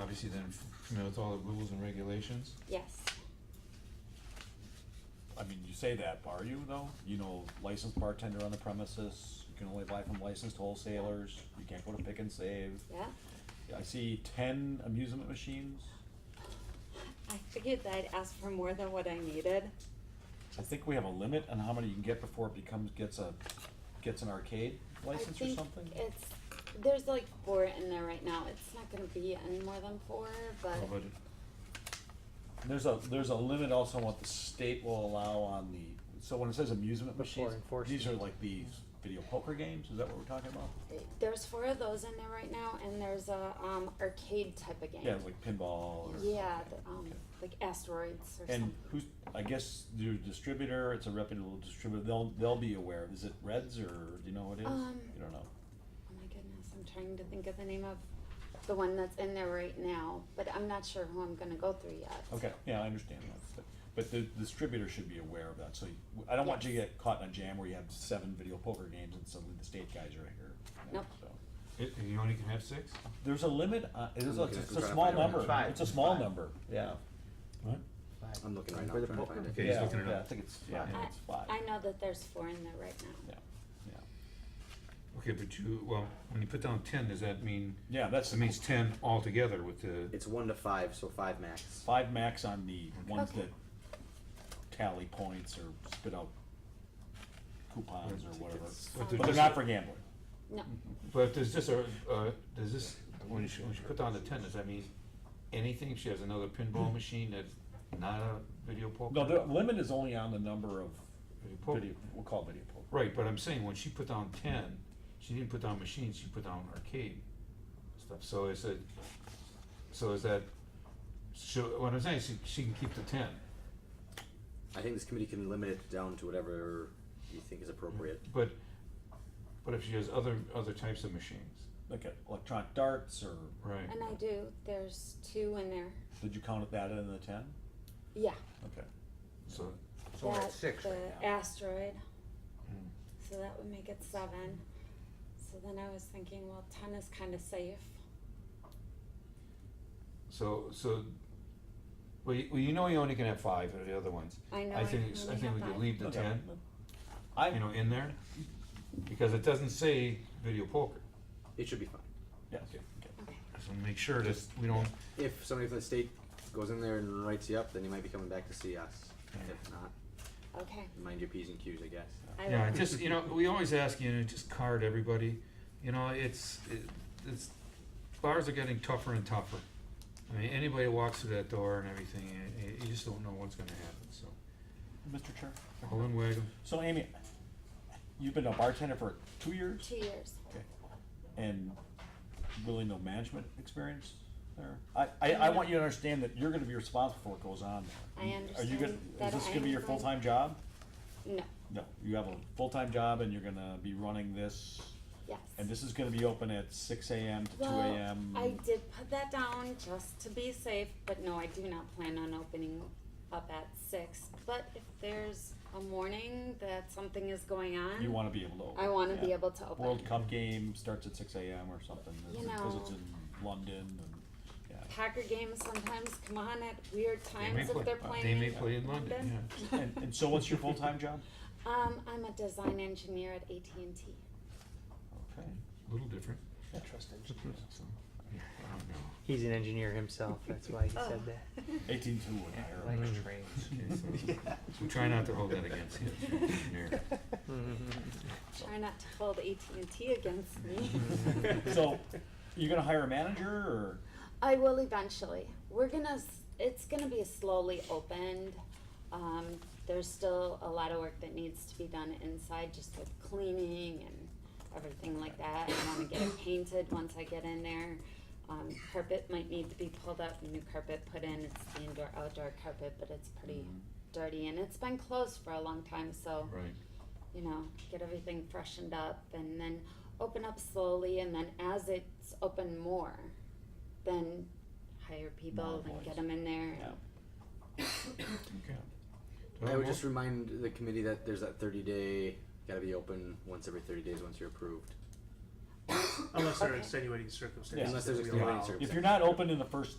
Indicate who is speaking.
Speaker 1: obviously then familiar with all the rules and regulations.
Speaker 2: Yes.
Speaker 3: I mean, you say that, but are you though? You know, licensed bartender on the premises, you can only buy from licensed wholesalers, you can't go to pick and save.
Speaker 2: Yeah.
Speaker 3: I see ten amusement machines.
Speaker 2: I figured that I'd ask for more than what I needed.
Speaker 3: I think we have a limit on how many you can get before it becomes, gets a, gets an arcade license or
Speaker 2: I think
Speaker 3: something?
Speaker 2: It's there's like four in there right now. It's not gonna be any more than four, but
Speaker 3: How about it? There's a, there's a limit also on what the state will allow on the, so when it says amusement machines, these are like these video poker games, is that what we're talking about?
Speaker 2: there's four of those in there right now, and there's a um, arcade type of game.
Speaker 3: Yeah, like pinball or.
Speaker 2: Yeah, the, um,
Speaker 3: Okay.
Speaker 2: like asteroids or
Speaker 3: And
Speaker 2: something.
Speaker 3: who's, I guess your distributor, it's a reputable distributor, they'll, they'll be aware, is it Reds or, do you know what it is?
Speaker 2: Um,
Speaker 3: You don't know.
Speaker 2: Oh my goodness, I'm trying to think of the name of the one that's in there right now, but I'm not sure who I'm gonna go through yet.
Speaker 3: Okay, yeah, I understand that, but, but the distributor should be aware of that, so you- I don't want you to get caught in a jam where you have seven video poker games and suddenly the state guys are here. you know,
Speaker 2: Nope.
Speaker 3: so.
Speaker 1: It, and you only can have six?
Speaker 3: There's a limit, uh, it is, a-
Speaker 4: Okay.
Speaker 3: it's a small number,
Speaker 5: Five.
Speaker 3: it's a small
Speaker 5: Five.
Speaker 3: number, yeah.
Speaker 1: What?
Speaker 4: I'm looking right now,
Speaker 5: For the
Speaker 4: trying to
Speaker 5: poker.
Speaker 4: find it.
Speaker 1: Okay, he's
Speaker 3: Yeah,
Speaker 1: looking it
Speaker 3: yeah,
Speaker 1: up.
Speaker 3: I think it's, yeah, I think
Speaker 2: I,
Speaker 3: it's five,
Speaker 2: I know that there's four in there right now.
Speaker 3: yeah, yeah.
Speaker 1: Okay, but you, well, when you put down ten, does that mean,
Speaker 3: Yeah, that's,
Speaker 1: that means ten altogether with the,
Speaker 4: It's one to five, so five max.
Speaker 3: five max on the ones
Speaker 2: Okay.
Speaker 3: that tally points or spit out coupons or whatever.
Speaker 1: but
Speaker 3: But they're
Speaker 1: there's
Speaker 3: not
Speaker 1: just,
Speaker 3: for gambling.
Speaker 2: No,
Speaker 3: Mm-hmm.
Speaker 1: but does this, uh, uh, does this, when she, when she put down the ten, does that mean anything? She has another pinball machine that's not a video poker?
Speaker 3: No, the limit is only on the number of
Speaker 1: Video poker.
Speaker 3: video, we'll call it video poker.
Speaker 1: Right, but I'm saying when she put down ten, she didn't put down machines, she put down arcade stuff, so is it, so is that, so, what I'm saying, she, she can keep the ten,
Speaker 4: I think this committee can limit it down to whatever you think is appropriate.
Speaker 1: but, but if she has other, other types of machines,
Speaker 3: Like uh, electronic darts or,
Speaker 1: right?
Speaker 2: and I do. There's two in there.
Speaker 3: did you count that in the ten?
Speaker 2: Yeah.
Speaker 3: Okay.
Speaker 1: So,
Speaker 5: So we're
Speaker 2: that-
Speaker 5: at six
Speaker 2: the
Speaker 5: right now. Hmm.
Speaker 2: asteroid.
Speaker 1: Mm.
Speaker 2: So that would make it seven. So then I was thinking, well, ten is kind of safe.
Speaker 1: so, so, well, you, well, you know you only can have five of the other ones.
Speaker 2: I know.
Speaker 1: I think,
Speaker 2: can
Speaker 1: it's- I
Speaker 2: only
Speaker 1: think
Speaker 2: have
Speaker 1: we could
Speaker 2: five.
Speaker 1: leave the
Speaker 3: Okay.
Speaker 1: ten,
Speaker 3: I,
Speaker 1: you know, in there, because it doesn't say video poker,
Speaker 4: It should be fine.
Speaker 3: yes,
Speaker 1: Okay.
Speaker 3: okay.
Speaker 2: Okay.
Speaker 1: so make sure that we don't,
Speaker 4: If somebody from the state goes in there and writes you up, then you might be coming back to see us. If not,
Speaker 2: Okay.
Speaker 4: mind your P's and Q's, I guess.
Speaker 2: I
Speaker 1: Yeah,
Speaker 2: will.
Speaker 1: just, you know, we always ask, you know, just card everybody, you know, it's, it- it's, bars are getting tougher and tougher. I mean, anybody walks through that door and everything, and you- you just don't know what's gonna happen, so.
Speaker 3: Mr. Chair?
Speaker 1: Helen Wagon,
Speaker 3: So Amy, you've been a bartender for two years
Speaker 2: Two years.
Speaker 3: and really no management experience there? I, I, I
Speaker 2: Mm-hmm.
Speaker 3: want you to understand that you're gonna be responsible for what goes on there. Are
Speaker 2: I
Speaker 3: you
Speaker 2: understand
Speaker 3: gonna,
Speaker 2: that
Speaker 3: is this
Speaker 2: I
Speaker 3: gonna be
Speaker 2: am
Speaker 3: your
Speaker 2: going-
Speaker 3: full-time job?
Speaker 2: No.
Speaker 3: No, you have a full-time job and you're gonna be running this,
Speaker 2: Yes.
Speaker 3: and this is gonna be open at six AM to two
Speaker 2: well,
Speaker 3: AM.
Speaker 2: I did put that down just to be safe, but no, I do not plan on opening up at six. But if there's a morning that something is going on,
Speaker 3: You wanna be able to open.
Speaker 2: I want to be
Speaker 3: yeah.
Speaker 2: able to open.
Speaker 3: World Cup game starts at six AM or something,
Speaker 2: You
Speaker 3: because it's
Speaker 2: know.
Speaker 3: in London and, yeah.
Speaker 2: Packer games sometimes come on at weird
Speaker 1: they may
Speaker 2: times if
Speaker 1: play,
Speaker 2: they're
Speaker 1: they
Speaker 2: playing.
Speaker 1: may play in London, yeah.
Speaker 3: And, and so what's your full-time job?
Speaker 2: Um, I'm a design engineer at AT&T.
Speaker 3: Okay,
Speaker 1: A little different.
Speaker 5: Trust
Speaker 1: Yeah,
Speaker 5: engineer.
Speaker 1: so, yeah, I don't know.
Speaker 6: He's an engineer himself. That's why he
Speaker 2: Oh.
Speaker 6: said that.
Speaker 3: eighteen two would hire
Speaker 6: Like
Speaker 3: him.
Speaker 6: trains.
Speaker 1: Okay, so- So try not to hold that against him, engineer.
Speaker 2: Try not to hold AT&T against me.
Speaker 3: So, you're gonna hire a manager or,
Speaker 2: I will eventually. We're gonna. s- It's gonna be slowly opened. Um, there's still a lot of work that needs to be done inside, just with cleaning and everything like that. I want to get it painted once I get in there. Um, carpet might need to be pulled up, new carpet put in. It's the indoor outdoor carpet, but it's pretty dirty and it's been closed for a long time, so
Speaker 1: Right,
Speaker 2: you know, get everything freshened up and then open up slowly and then as it's open more, then hire people
Speaker 3: More
Speaker 2: and
Speaker 3: voice.
Speaker 2: get them in there.
Speaker 3: yeah,
Speaker 1: okay. Do I
Speaker 4: I
Speaker 1: have
Speaker 4: would
Speaker 1: a
Speaker 4: just remind the committee that there's that 30 day, gotta be open once every 30 days once you're approved.
Speaker 7: Unless there are
Speaker 2: Okay.
Speaker 7: extenuating circumstances.
Speaker 4: Unless there's
Speaker 7: that we
Speaker 4: extenuating
Speaker 7: allow.
Speaker 4: circumstances.
Speaker 3: if you're not open in the first